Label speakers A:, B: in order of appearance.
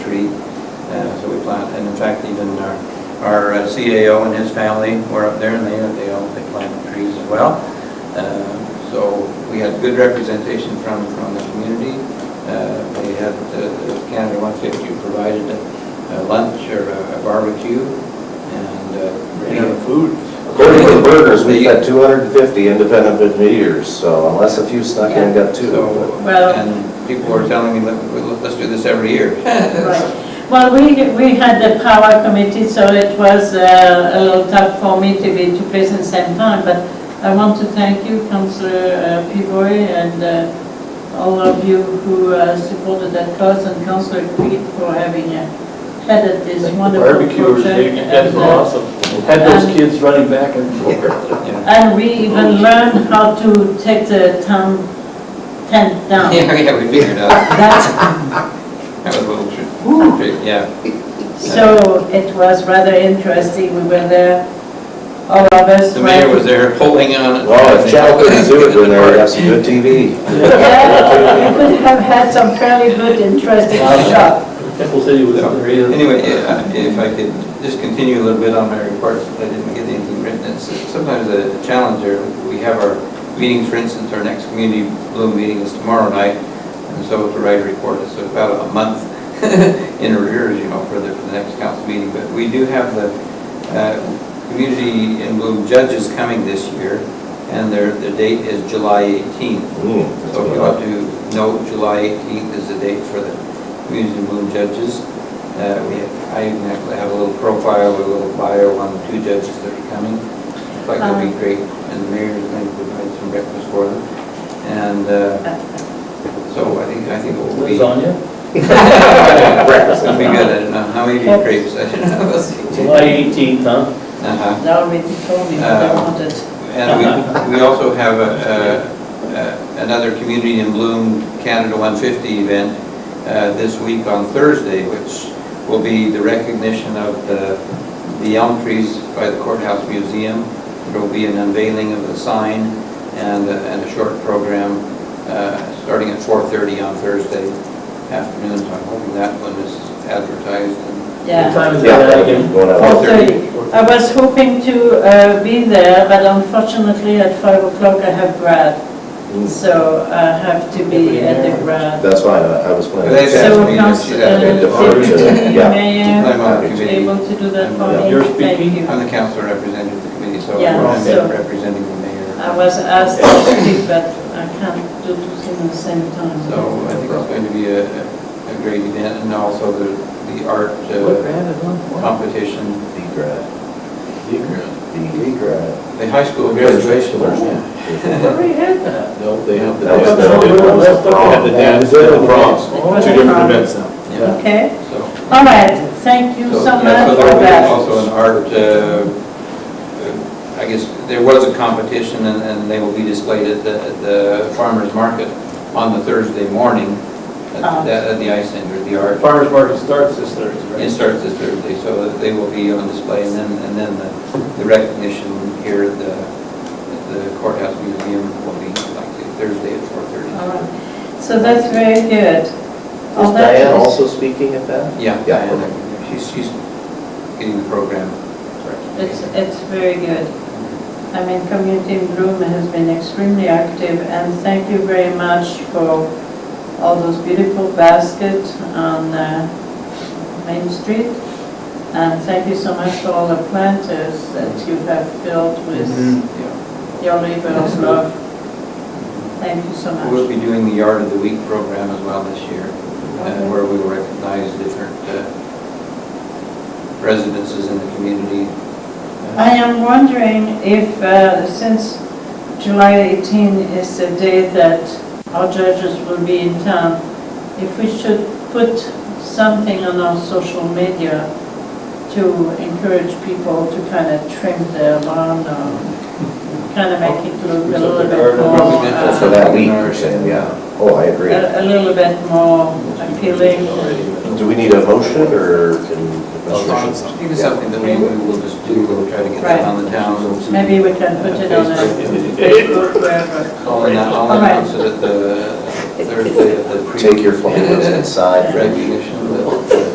A: tree. Uh, So we plant, and in fact, even our, our uh, CAO and his family were up there and they, they all, they planted trees as well. Uh, So we had good representation from, from the community. Uh, They had, uh, the Canada 150 provided a lunch or a barbecue and. uh,
B: food.
C: According to the burgers, we've had 250 independent good meters, so unless a few snuck in, got two.
A: So,
D: Well-
A: and people were telling me, "Let- let's do this every year.
D: Right. Well, we, we had the power committee, so it was uh, a little tough for me to be two places at the same time, but I want to thank you, Councillor Pivoy, and uh, all of you who uh, supported that cause, and Councillor Creed for having uh, headed this wonderful project.
B: Barbecuers, they- you guys
D: and,
B: were
D: uh,
B: awesome. Had those
D: And-
B: kids running back and forth.
A: Yeah.
D: uh, And we even learned how to take the town tent down.
A: Yeah, yeah, we figured out.
D: That's,
A: That was a little trick, trick, yeah.
D: so it was rather interesting, we were there, all of us.
A: The mayor
D: were-
A: was there holding on.
C: Well, if Channel 32 had been there, we'd have some good TV.
D: Yeah, we could have had some fairly good, interesting shop.
B: Temple City was
A: So,
B: there, yeah.
A: Anyway, yeah, if I could just continue a little bit on my reports, I didn't get anything written. It's sometimes a challenge there. We have our meetings, for instance, our next community bloom meeting is tomorrow night. And so to write a report, it's about a month in arrears, you know, for the, for the next council meeting. But we do have the uh, community in bloom judges coming this year, and their, the date is July 18th.
C: Hmm, that's
A: So
C: what
A: we
C: I-
A: ought to note July 18th is the date for the community moon judges. Uh, We, have- I even have- have a little profile, a little bio on the two judges that are coming. Like, that'd be
D: Um.
A: great, and the mayor is going to provide some breakfast for them. And uh, so I think, I think it will be.
B: Lasagna,
C: Breakfast.
A: It'll be good, I don't know, how many crepes, I don't know. We'll see.
B: July 18th, huh?
A: Uh-huh.
D: They already told me what they wanted.
A: And we, we also have a, a- a- another Community in Bloom Canada 150 event uh, this week on Thursday, which will be the recognition of the, the elm trees by the Courthouse Museum. There will be an unveiling of the sign and, a- and a short program, uh, starting at 4:30 on Thursday afternoon. So I'm hoping that one is advertised and
B: What
D: Yeah,
B: time is
C: Yeah,
B: that again?
C: going out.
D: four thirty. I was hoping to uh, be there, but unfortunately at five o'clock I have grad,
C: Hmm,
D: so I have to be at the grad.
C: That's fine, I I was
A: They've
C: planning.
A: asked
D: So
A: me if she's
D: Councillor,
A: had a-
D: Deputy
C: Yeah.
D: Mayor,
A: I'm on the
D: you
A: committee.
D: able to do that for
A: uh,
C: Yeah.
D: me?
B: You're
D: Thank
B: speaking?
D: you.
A: I'm the council representative of the committee, so
D: Yeah,
A: I'm
D: so-
A: representing the mayor.
D: I was asked to speak, but I can't do two things at the same time.
A: So I think it's going to be a, a great event, and also the, the art
B: What
A: uh,
B: grad is on?
A: competition.
C: D grad.
B: Degrad.
C: D grad.
A: The high school graduation.
D: Very good.
E: No, they have the.
C: That was
E: dance.
C: the- that was
B: Oh,
C: the prom.
E: They have the dance,
C: That was
E: and
C: the
E: the proms,
D: prom.
E: two different events now.
A: Yeah,
D: Okay,
A: so.
D: all right, thank you so
A: yeah,
D: much
A: so
D: for
A: there was
D: that.
A: Also an art, uh, uh, I guess, there was a competition, and, and they will be displayed at the, at the farmer's market on the Thursday morning
D: Ah.
A: at the, at the ice center, the art.
B: Farmer's market starts this Thursday, right?
A: It starts this Thursday, so that they will be on display, and then, and then the- the recognition here at the at the courthouse museum will be like Thursday at four
D: All
A: thirty.
D: right. So that's very good. All
C: Is
D: that
C: Diane
D: is-
C: also speaking at that?
A: Yeah,
C: Yeah.
A: Diana, she's, she's getting the program.
D: It's, it's very good. I mean, Community in Bloom has been extremely active, and thank you very much for all those beautiful baskets on uh, Main Street. And thank you so much for all the planters that you have filled with
A: Mm-hmm. Yeah.
D: your labor of love. Thank you so
A: We'll
D: much.
A: be doing the Yard of the Week program as well this year, uh, where we will recognize different uh, residences in the community.
D: I am wondering if, uh, since July 18 is the day that our judges will be in town, if we should put something on our social media to encourage people to kind of trim their lawn or kind of make it look a little bit more,
A: Yeah.
C: So
D: uh,
C: that week, you're saying, yeah. Oh, I agree.
D: a a little bit more appealing.
C: Do we need a motion, or can?
A: I think it's something that we we will just do, we'll try to get that on the town.
D: Maybe we can put it on a Facebook, wherever.
A: All in, all in, so that the Thursday of the. pre-
C: Take your flowers inside,
A: Recognition.